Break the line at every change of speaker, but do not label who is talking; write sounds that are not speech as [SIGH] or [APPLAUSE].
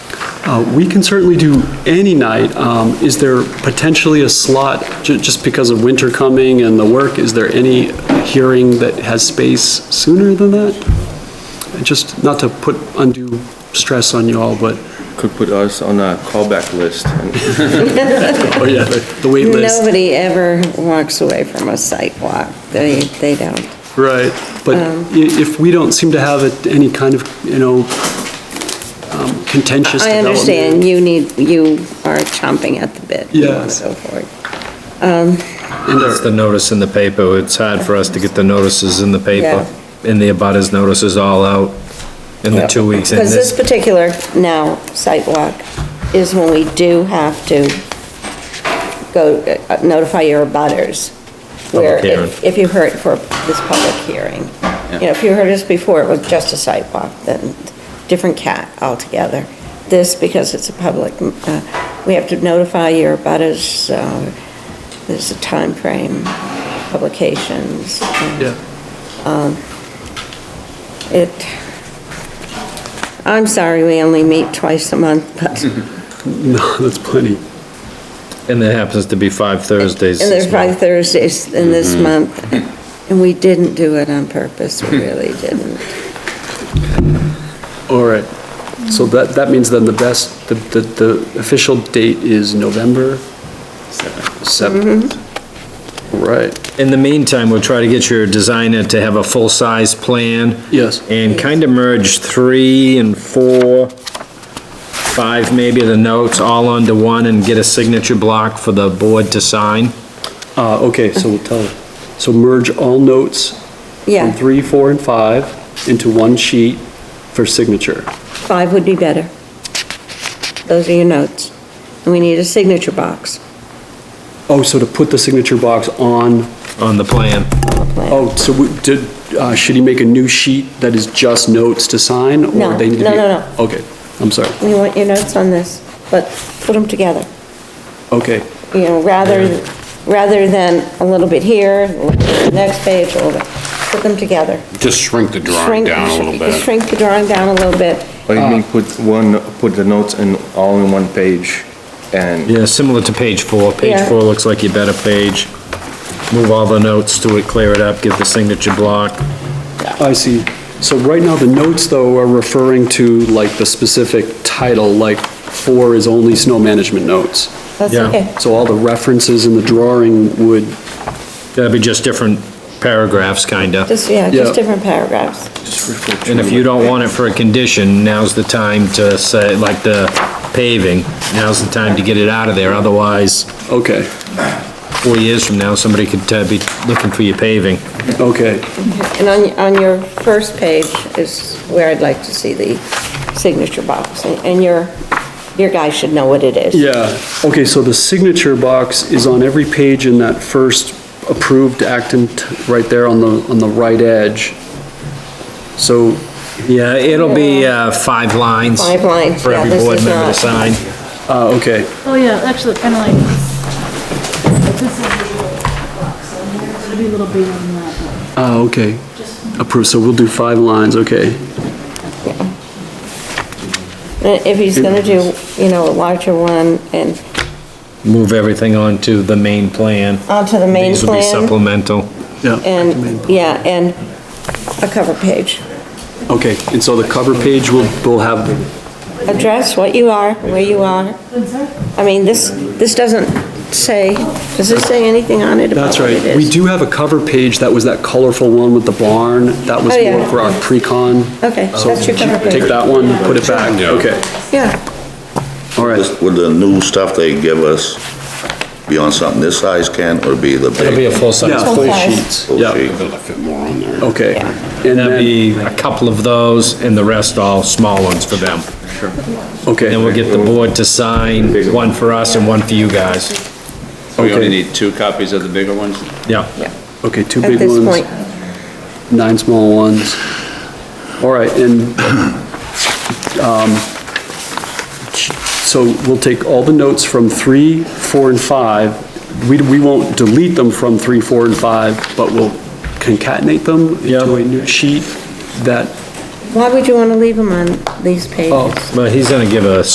Uh, We can certainly do any night. Um, Is there potentially a slot, ju- just because of winter coming and the work, is there any hearing that has space sooner than that? And Just not to put undue stress on you all, but,
Could put us on a callback list.
oh yeah, the the wait list.
Nobody ever walks away from a sidewalk. They, they don't.
Right, but
Um.
i- if we don't seem to have it- any kind of, you know, um, contentious
I
development.
understand, you need, you are chomping at the bit. You want to
Yes.
go forward.
and our-
It's the notice in the paper, it's hard for us to get the notices in the paper, and the abutters notices all out in the two weeks, and
Because this
this,
particular now sidewalk is when we do have to go uh, notify your abutters. Where
Public hearing.
if, if you heard for this public hearing, you know, if you heard us before, it was just a sidewalk, then different cat altogether. This, because it's a public, uh, we have to notify your abutters, uh, there's a time frame, publications. and- um,
Yeah.
It, I'm sorry, we only meet twice a month, but, and
uh, [LAUGHS] No, that's plenty.
and there happens to be five Thursdays.
there's probably Thursdays in this
Mm-hmm.
month, and we didn't do it on purpose,
Mm-hmm.
we really didn't.
All right, so that, that means then the best, the, the, the official date is November? Seventh.
Mm-hmm.
Right,
In the meantime, we'll try to get your designer to have a full-size plan.
Yes.
And kind of merge three and four, five maybe, of the notes, all onto one, and get a signature block for the board to sign.
uh, okay, so we'll tell, so merge all notes from
Yeah,
three, four, and five into one sheet for signature.
five would be better. Those are your notes. And we need a signature box
Oh, so to put the signature box on,
On the plan.
on the plan.
oh, so we- did, uh, should he make a new sheet that is just notes to sign? or
No,
they need to
no,
be-
no, no.
Okay, I'm sorry,
We want your notes on this, but put them together.
okay,
you know, rather, rather than a little bit here, a little bit next page, a little bit, put them together.
Just shrink the drawing
Shrink-
down a little bit.
Shrink the drawing down a little bit.
Or you mean put one, put the notes in, all in one page and
Yeah, similar to page four. Page
Yeah.
four looks like your better page. Move all the notes to it, clear it up, give the signature block.
I see. So right now, the notes, though, are referring to, like, the specific title, like, four is only snow management notes.
That's
Yeah.
okay.
So all the references in the drawing would,
That'd be just different paragraphs, kinda.
Just, yeah,
Yeah.
just different paragraphs.
just refer to.
And if you don't want it for a condition, now's the time to say, like the paving, now's the time to get it out of there, otherwise,
okay,
four years from now, somebody could uh, be looking for your paving.
okay,
And on, on your first page is where I'd like to see the signature box. And- And your, your guy should know what it is.
yeah. Okay, so the signature box is on every page in that first approved Acton, t- right there on the, on the right edge. So,
Yeah, it'll be, uh, five lines.
Five lines,
For
yeah,
every
this
board
is
member to
not-
sign.
uh, okay,
Oh, yeah, actually, kind of like this. This is the little box on here, it's gonna be a little bigger than that.
uh, okay. Approved, so we'll do five lines, okay.
And If he's gonna do, you know, a larger one and
Move everything onto the main plan.
onto the main
These will be
plan.
supplemental.
Yeah.
And, yeah, and a cover page.
Okay, and so the cover page will, will have
address what you are, where you are. I mean, this, this doesn't say, does this say anything on it about
That's
what it
right. We
is?
do have a cover page that was that colorful one with the barn. That was
Oh, yeah.
more for our pre-con.
Okay, that's your cover
Take
page.
that one, put it back. Okay,
Yeah,
all right.
This- Would the new stuff they give us be on something this size, Ken, or be the
It'll be a
big?
full-size.
Yeah, full
size.
sheets.
full
Yeah,
sheet?
Gotta fit more on there.
okay. And
That'd
then,
be a couple of those, and the rest all small ones for them. Then we'll
okay,
get the board to sign, one for us and one for you guys.
So we only
Okay.
need two copies of the bigger ones?
Yeah.
okay, two
at
big
this
ones,
point,
nine small ones. All right, and, um, so we'll take all the notes from three, four, and five. We, we won't delete them from three, four, and five, but we'll concatenate them into a new sheet that Oh.
why would you want to leave them on these pages?
But he's gonna give a